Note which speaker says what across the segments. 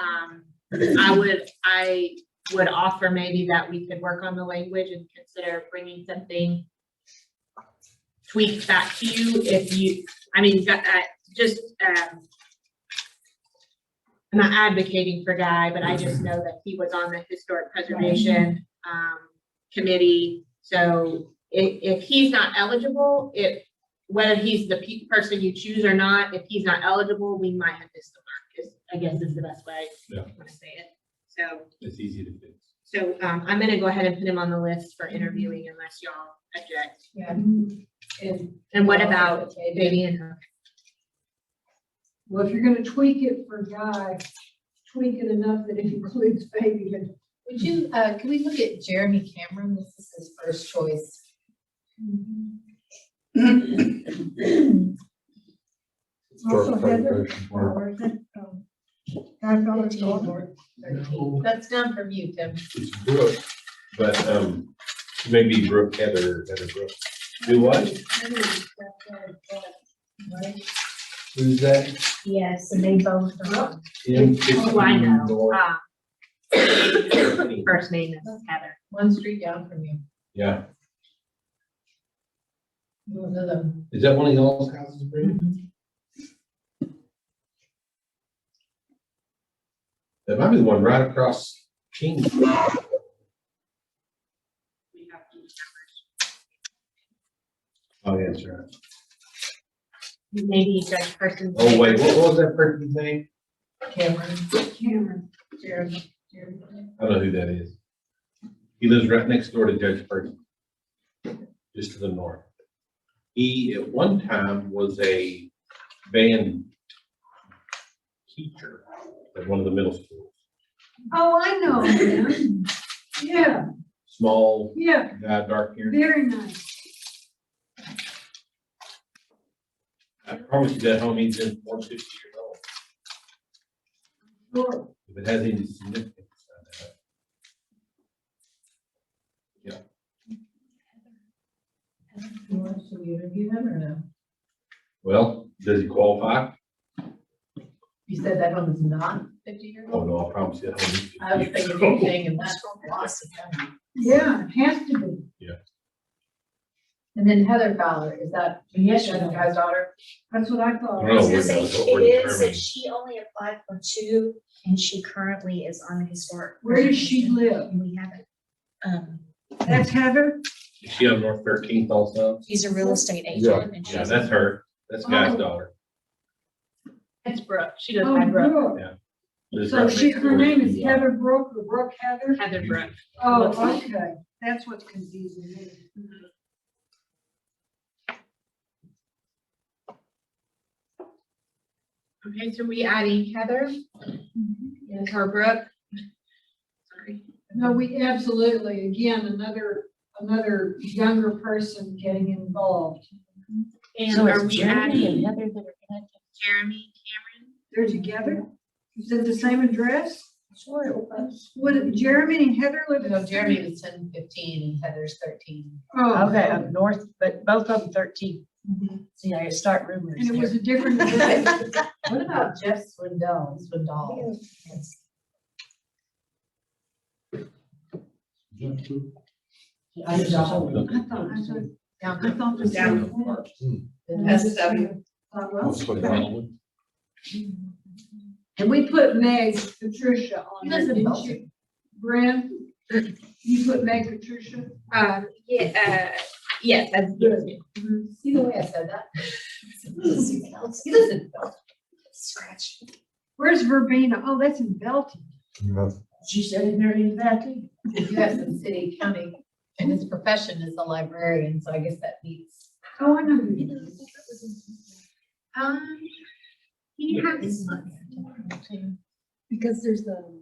Speaker 1: Um, I would, I would offer maybe that we could work on the language and consider bringing something tweaked back to you if you, I mean, got, uh, just, um, I'm not advocating for Guy, but I just know that he was on the historic preservation, um, committee. So if, if he's not eligible, if, whether he's the pe- person you choose or not, if he's not eligible, we might have missed the mark, is, I guess is the best way
Speaker 2: Yeah.
Speaker 1: want to say it. So,
Speaker 2: It's easy to fix.
Speaker 1: so um, I'm gonna go ahead and put him on the list for interviewing unless y'all object.
Speaker 3: Yeah. And,
Speaker 1: And what about Baby and Hook?
Speaker 3: well, if you're gonna tweak it for Guy, tweak it enough that it includes baby and.
Speaker 4: Would you, uh, can we look at Jeremy Cameron? This is his first choice.
Speaker 3: Also Heather.
Speaker 2: Or-
Speaker 3: or is it, um, Guy Fawkes' daughter?
Speaker 2: No.
Speaker 4: That's down from you, Tim.
Speaker 2: It's Brooke, but, um, maybe Brooke Heather, Heather Brooke. Do what?
Speaker 3: Heather is Guy Fawkes' daughter, right?
Speaker 2: Who's that?
Speaker 4: Yes, and they both are.
Speaker 2: In
Speaker 1: Oh, I know.
Speaker 2: 15 or-
Speaker 1: Ah, First name is Heather.
Speaker 4: One street down from you.
Speaker 2: Yeah,
Speaker 4: One of them.
Speaker 2: is that one of y'all's houses, Brady? That might be the one right across King.
Speaker 1: We have these numbers.
Speaker 2: Oh, yeah, that's right.
Speaker 1: Maybe Judge Person.
Speaker 2: Oh, wait, what what was that person's name?
Speaker 4: Cameron,
Speaker 3: Cameron.
Speaker 4: Jeremy, Jeremy.
Speaker 2: I don't know who that is. He lives right next door to Judge Purdy. Just to the north. He at one time was a band teacher at one of the middle schools.
Speaker 3: Oh, I know him. Yeah,
Speaker 2: Small
Speaker 3: yeah,
Speaker 2: guy, dark hair.
Speaker 3: very nice.
Speaker 2: I promise you that homie's in one fifty years old.
Speaker 3: Sure.
Speaker 2: If it has any significance. I don't know.
Speaker 4: You want to interview them or no?
Speaker 2: Well, does he qualify?
Speaker 4: You said that one was not fifty years
Speaker 2: Oh,
Speaker 4: old?
Speaker 2: no, I promise you that homie's. 50
Speaker 4: I was thinking
Speaker 2: years old.
Speaker 4: anything in that philosophy.
Speaker 3: Yeah, it has to be.
Speaker 4: And then Heather Fowler, is that? Yes.
Speaker 3: she is.
Speaker 4: Guy's daughter?
Speaker 3: That's what I
Speaker 2: I
Speaker 3: thought.
Speaker 2: don't know where
Speaker 5: I was gonna
Speaker 2: that's
Speaker 5: say,
Speaker 2: what we're
Speaker 5: it is,
Speaker 2: determining.
Speaker 5: that she only applied for two, and she currently is on the historic.
Speaker 3: Where does she
Speaker 5: preservation,
Speaker 3: live? Oh,
Speaker 5: And we haven't, um,
Speaker 3: That's Heather?
Speaker 2: Is she on North Thirteenth also?
Speaker 5: she's a real estate
Speaker 2: Yeah.
Speaker 5: agent, and
Speaker 2: Yeah,
Speaker 5: she's,
Speaker 2: that's her. That's Guy's
Speaker 3: Oh.
Speaker 2: daughter.
Speaker 1: It's Brooke. She
Speaker 3: Oh, Brooke.
Speaker 2: Lives
Speaker 3: So
Speaker 2: right
Speaker 3: she,
Speaker 2: next
Speaker 3: her
Speaker 2: door
Speaker 3: name
Speaker 2: to
Speaker 3: is
Speaker 2: you.
Speaker 3: Heather Brooke or Brooke Heather?
Speaker 1: Heather Brooke.
Speaker 3: Oh, okay, that's what's confusing me.
Speaker 1: Okay, so we adding Heather? Yes. Or Brooke? Sorry.
Speaker 3: No, we absolutely, again, another, another younger person getting involved.
Speaker 1: And are we adding
Speaker 5: Heather that are connected?
Speaker 1: Jeremy Cameron?
Speaker 3: They're together? Is it the same address?
Speaker 5: Sure, it was.
Speaker 3: Would Jeremy and Heather live in?
Speaker 4: No, Jeremy was ten fifteen and Heather's thirteen.
Speaker 3: Oh.
Speaker 6: Okay, up north, but both of them thirteen. See, I start rumors
Speaker 3: And it was
Speaker 6: here.
Speaker 3: a different address.
Speaker 4: What about Jeff Swindell, Swindell?
Speaker 2: Is that something
Speaker 3: I thought, I
Speaker 2: that-
Speaker 3: thought, I thought the Hmm. same.
Speaker 2: Down.
Speaker 4: SW.
Speaker 3: Thought, well,
Speaker 2: That's what Donald-
Speaker 3: And we put Meg Patricia on there,
Speaker 4: Listen,
Speaker 3: didn't you? Bren, you put Meg Patricia?
Speaker 1: Um, yeah, uh, yes, that's good.
Speaker 4: See the way I said that?
Speaker 3: Hmm.
Speaker 4: He lives in Belton.
Speaker 5: Scratch.
Speaker 3: Where's Verbena? Oh, that's in Belton.
Speaker 6: She said it very emphatically.
Speaker 4: You have some city, county, and his profession is a librarian, so I guess that meets.
Speaker 3: Oh, I know who it is.
Speaker 1: Um, he has,
Speaker 6: Because there's the.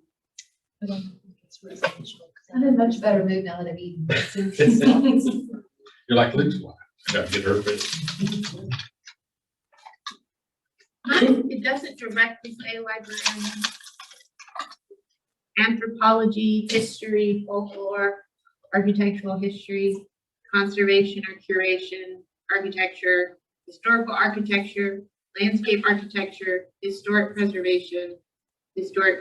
Speaker 6: I don't think it's residential.
Speaker 4: I'm in much better mood now that I've eaten.
Speaker 2: You're like Luke's wife. Gotta get her fit.
Speaker 1: mine, it doesn't directly say librarian. Anthropology, history, folklore, architectural history, conservation or curation, architecture, historical architecture, landscape architecture, historic preservation, historic